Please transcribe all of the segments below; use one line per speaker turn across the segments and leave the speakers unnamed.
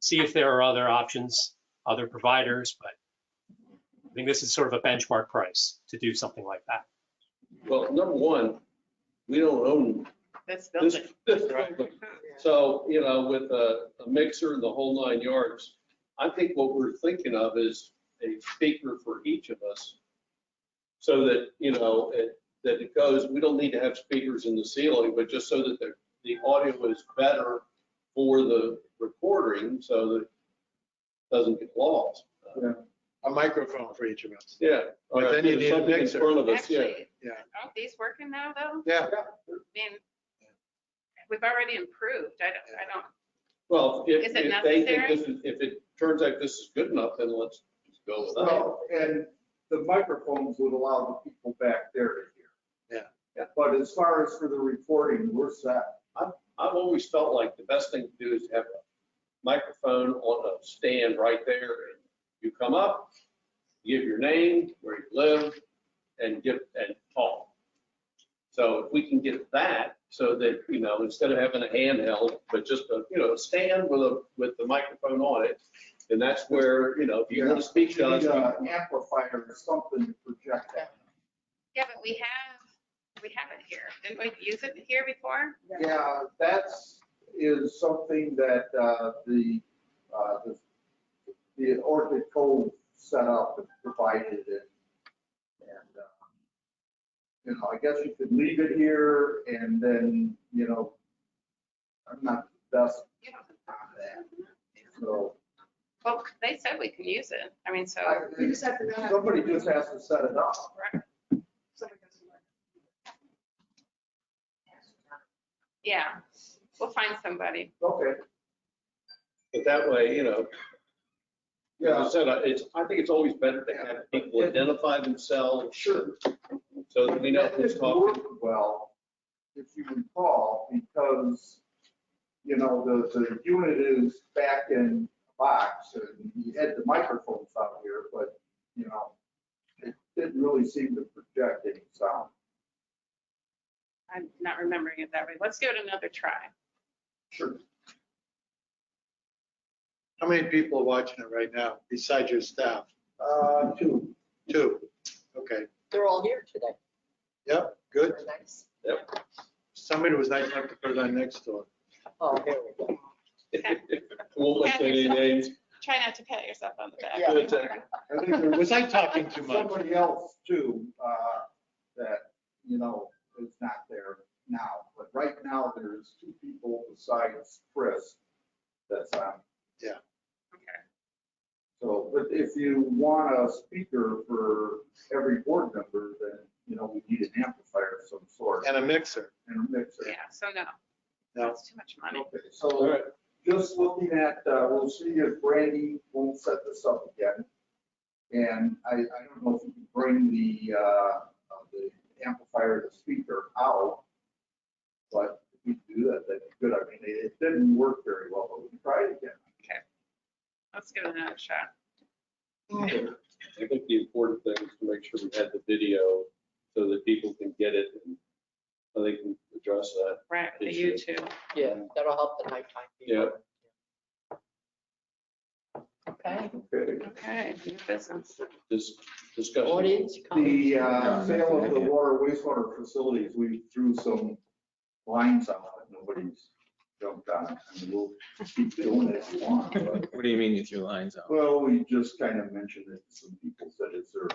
see if there are other options, other providers, but I think this is sort of a benchmark price to do something like that.
Well, number one, we don't own
That's
this.
building.
this building. So, you know, with a a mixer and the whole nine yards, I think what we're thinking of is a speaker for each of us. So that, you know, it- that it goes, we don't need to have speakers in the ceiling, but just so that the, the audio is better for the recording, so that it doesn't get lost.
a microphone for each of us.
Yeah.
But then you need a
Something in
mixer.
front of us, yeah.
Actually,
Yeah.
aren't these working now, though?
Yeah,
I mean, we've already improved. I don't, I don't,
Well, if,
Is it
if they think
necessary?
this is, if it turns out this is good enough, then let's go with that.
Well, and the microphones would allow the people back there to hear. Yeah. But as far as for the recording, we're set.
I've always felt like the best thing to do is have a microphone on a stand right there. You come up, give your name, where you live, and give, and talk. So if we can get that, so that, you know, instead of having a handheld, but just a, you know, a stand with a, with the microphone on it, and that's where, you know, if you want to speak to
You
us,
need
you-
an amplifier or something to project that.
yeah, but we have, we have it here. Didn't we use it here before?
Yeah, that's, is something that uh, the, uh, the- the Orchid Code set up and provided it. And, uh, you know, I guess you could leave it here and then, you know, I'm not the best
You don't-
on that, so.
Well, they said we can use it. I mean, so.
I-
You just have to know how to-
Somebody just has to set it up.
Yeah, we'll find somebody.
Okay.
but that way, you know, As I said, I- it's, I think it's always better to have people identify themselves. Sure. So that we know
That
who's
didn't
talking.
work Well, if you recall, because, you know, the, the unit is back in a box and he had the microphones out here, but, you know, it didn't really seem to project any sound.
I'm not remembering it that way. Let's give it another try.
Sure.
how many people are watching it right now besides your staff?
Uh, two.
Two, okay,
They're all here today.
yep, good.
Very nice.
Somebody was nice enough to put it on next door.
Oh, there we go.
Won't mention any names.
Try not to pat yourself on the back.
Yeah.
Good tech.
I think there was
Was I talking too much?
somebody else too, uh, that, you know, is not there now. But right now, there's two people besides Chris that's on
Okay.
So, but if you want a speaker for every board member, then, you know, we need an amplifier of some sort
And a mixer.
and a mixer.
Yeah, so no.
No.
That's too much money.
Okay,
All
so
right.
just looking at, uh, we'll see if Brandy won't set this up again. And I, I don't know if you can bring the, uh, uh, the amplifier, the speaker out. But if we do that, that'd be good. I mean, it it didn't work very well, but we can try it again.
Let's give it another shot.
I think the important thing is to make sure we had the video so that people can get it and so they can address that.
Right, the
Issue.
YouTube.
Yeah, that'll help the nighttime. people. Okay,
Okay.
Okay, new business.
This discussion.
audience comments.
The uh, sale of the water wastewater facilities, we threw some lines out, and nobody's jumped on it. I mean, We'll keep doing it if you want, but,
What do you mean you threw lines out?
well, we just kind of mentioned it, to some people said, is there,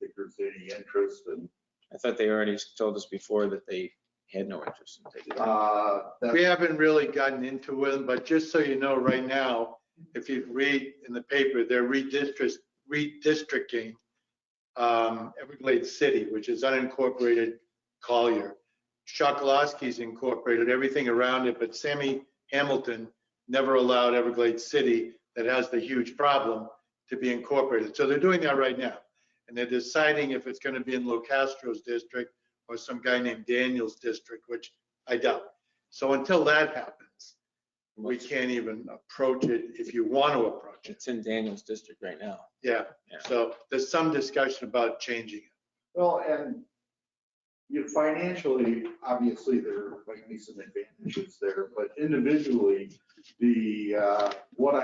if there's any interest, and,
I thought they already told us before that they had no interest in taking it.
uh,
We
that,
haven't really gotten into it, but just so you know, right now, if you read in the paper, they're redistrict, redistricting um, Everglades City, which is unincorporated Collier. Shokoloski's incorporated everything around it, but Sammy Hamilton never allowed Everglades City, that has the huge problem, to be incorporated. So they're doing that right now. And they're deciding if it's going to be in LoCastro's district or some guy named Daniel's district, which I doubt. So until that happens, we can't even approach it if you want to approach it.
It's in Daniel's district right now.
Yeah,
Yeah.
so there's some discussion about changing it.
well, and you know, financially, obviously, there might be some advantages there, but individually, the, uh, what